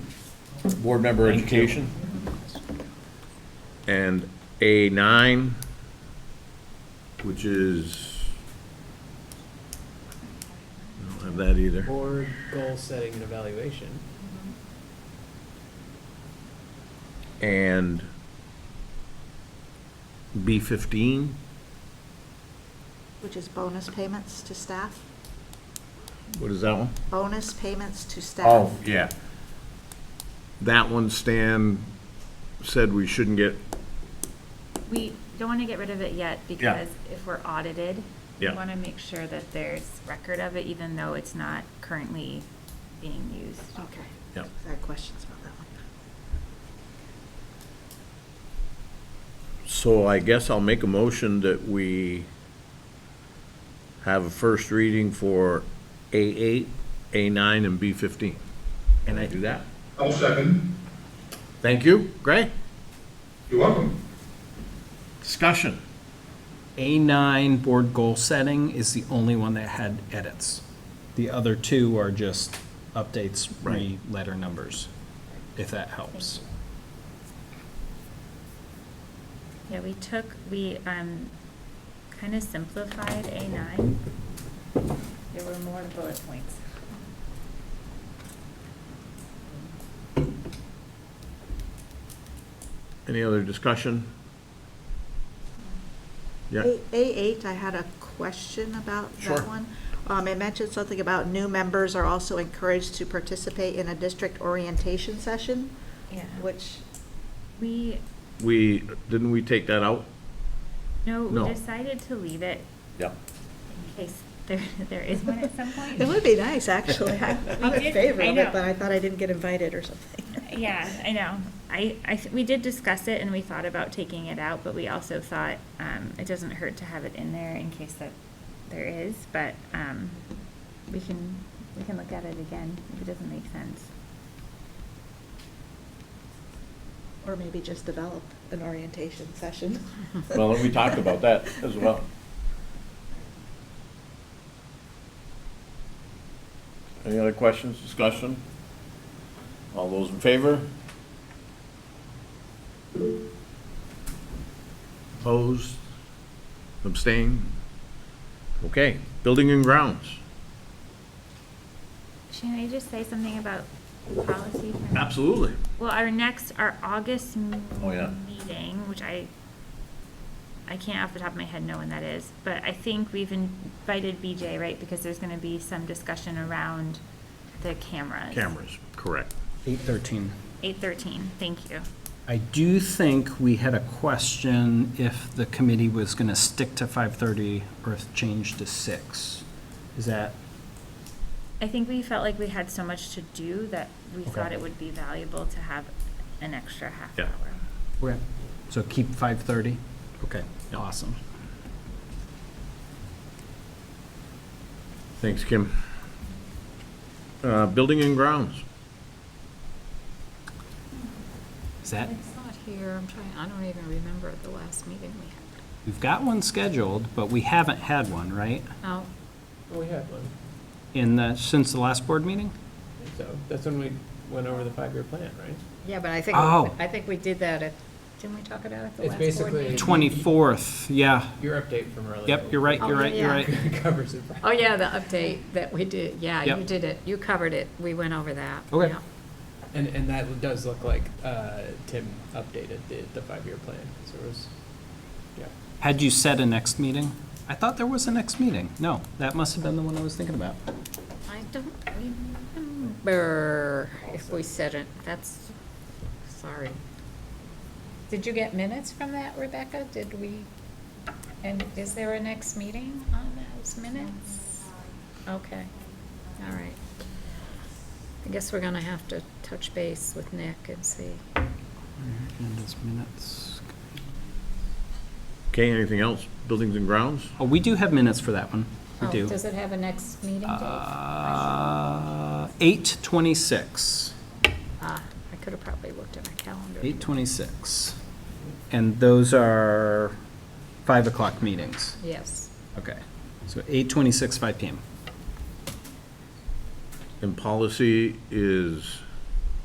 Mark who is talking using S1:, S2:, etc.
S1: Board member education?
S2: And A9, which is, I don't have that either.
S3: Board goal setting and evaluation.
S2: And B15,
S4: Which is bonus payments to staff?
S2: what is that one?
S4: Bonus payments to staff?
S2: Oh, yeah. That one Stan said we shouldn't get,
S5: We don't want to get rid of it yet because if we're audited, we
S2: Yeah.
S5: want to make sure that there's record of it, even though it's not currently being used.
S4: Okay.
S2: Yep.
S4: I had questions about that one.
S2: so I guess I'll make a motion that we have a first reading for A8, A9, and B15. Can I do that?
S6: I'll second.
S2: Thank you, Gray.
S6: You're welcome.
S2: Discussion.
S7: A9 board goal setting is the only one that had edits. The other two are just updates,
S2: Right.
S7: re-letter numbers, if that helps.
S5: Yeah, we took, we, um, kind of simplified A nine. There were more bullet points.
S2: Any other discussion? Yeah.
S4: A- A8, I had a question about
S2: Sure.
S4: that one. Um, It mentioned something about new members are also encouraged to participate in a district orientation session,
S5: Yeah.
S4: which,
S5: We,
S2: We, didn't we take that out?
S5: no,
S2: No.
S5: we decided to leave it
S2: Yep.
S5: in case there, there is one at some point.
S4: it would be nice, actually. I- I'm
S5: We
S4: in
S5: did-
S4: favor
S5: I
S4: of
S5: know.
S4: it, but I thought I didn't get invited or something.
S5: Yeah, I know. I, I, th- we did discuss it and we thought about taking it out, but we also thought, um, it doesn't hurt to have it in there in case that there is, but, um, we can, we can look at it again if it doesn't make sense.
S4: Or maybe just develop an orientation session.
S2: Well, we talked about that as well. Any other questions, discussion? All those in favor? Opposed? Abstain? Okay, building and grounds.
S5: Shannon, I just say something about policy? for now?
S2: Absolutely.
S5: Well, our next, our August m-
S2: Oh, yeah.
S5: meeting, which I, I can't off the top of my head know when that is, but I think we've invited BJ, right? Because there's gonna be some discussion around the cameras.
S2: Cameras, correct.
S7: 813.
S5: Eight thirteen, thank you.
S7: I do think we had a question if the committee was going to stick to 5:30 or if change to 6. Is that,
S5: I think we felt like we had so much to do that we
S7: Okay.
S5: thought it would be valuable to have an extra half
S2: Yeah.
S5: hour.
S7: okay. so keep 5:30? Okay, awesome.
S2: Thanks, Kim. Uh, building and grounds.
S7: Is that,
S8: It's not here, I'm trying, I don't even remember the last meeting we had.
S7: we've got one scheduled, but we haven't had one, right?
S8: No,
S3: Well, we had one,
S7: In the, since the last board meeting?
S3: so that's when we went over the five-year plan, right?
S8: yeah, but I think,
S7: Oh.
S8: I think we did that at, didn't we talk about it at the
S3: It's
S8: last board
S3: basically-
S8: meeting?
S7: 24th, yeah.
S3: Your update from earlier.
S7: Yep, you're right, you're right, you're right.
S3: Covers it.
S8: Oh, yeah, the update that we did, yeah, you
S7: Yep.
S8: did it, you covered it, we went over that.
S7: Okay.
S8: yeah.
S3: And, and that does look like, uh, Tim updated the, the five-year plan, so it was, yeah.
S7: Had you set a next meeting? I thought there was a next meeting. No, that must have been the one I was thinking about.
S8: I don't remember if we said it, that's, sorry. Did you get minutes from that, Rebecca? Did we, and is there a next meeting on those minutes? Okay, all right. I guess we're gonna have to touch base with Nick and see.
S7: And his minutes.
S2: Okay, anything else? Buildings and grounds?
S7: Oh, we do have minutes for that one. We
S8: Oh,
S7: do.
S8: Does it have a next meeting date?
S7: Uh, 8:26.
S8: Ah, I could have probably looked at my calendar.
S7: 8:26. And those are 5 o'clock meetings.
S8: Yes.
S7: Okay. So 8:26, 5 PM.
S2: And policy is